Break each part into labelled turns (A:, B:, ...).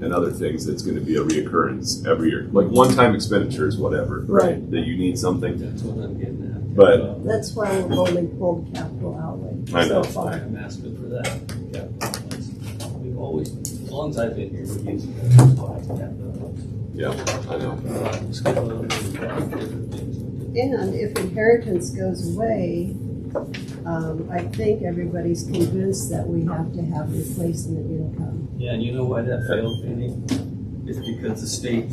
A: and other things that's going to be a reoccurrence every year. Like one-time expenditures, whatever,
B: Right.
A: that you need something.
C: That's what I'm getting at.
A: But-
C: Uh,
B: That's why we've only pulled capital outlay
A: I
B: so
A: know.
B: far.
C: I'm asking for that. Yeah. We've always, as long as I've been here, we've used that.
A: Yeah, I know.
B: And if inheritance goes away, um, I think everybody's convinced that we have to have replacement income.
C: Yeah, and you know why that failed, Penny? It's because the state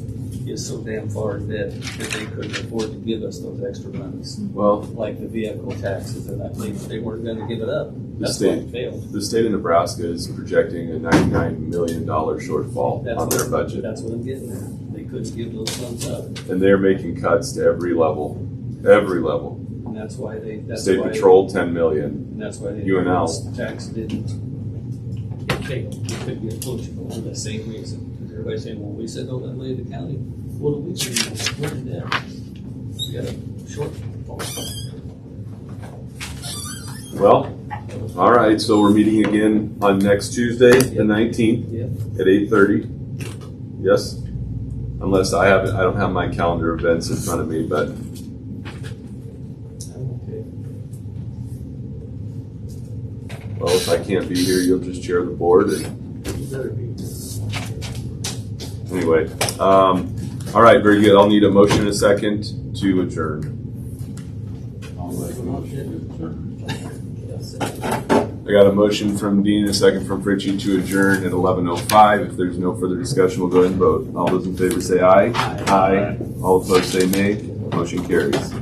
C: is so damn far in debt that they couldn't afford to give us those extra monies,
A: Well,
C: like the vehicle taxes, and I believe they weren't gonna give it up. That's why it failed.
A: the state of Nebraska is projecting a ninety-nine million dollar shortfall
C: That's
A: on their
C: what-
A: budget.
C: That's what I'm getting at. They couldn't give those funds up,
A: and they're making cuts to every level, every level.
C: and that's why they, that's
A: State
C: why-
A: Patrol, ten million.
C: And that's why they.
A: UNL.
C: Tax didn't. It failed. It couldn't get approachable for the same reason. Because everybody's saying, well, we said, oh, that lay the county. What do we do? We're in debt. We got a short.
A: Well, all right. So we're meeting again on next Tuesday, the nineteenth,
C: Yeah.
A: at eight thirty. Yes, unless I haven't, I don't have my calendar events in front of me, but
C: Okay.
A: well, if I can't be here, you'll just chair the board. And
C: You better be.
A: anyway, um, all right, very good. I'll need a motion and a second to adjourn.
C: I'll make a motion.
A: I got a motion from Dean and a second from Fritchie to adjourn at eleven oh five. If there's no further discussion, we'll go ahead and vote. All those in favor say aye. Aye. All opposed say nay. Motion carries.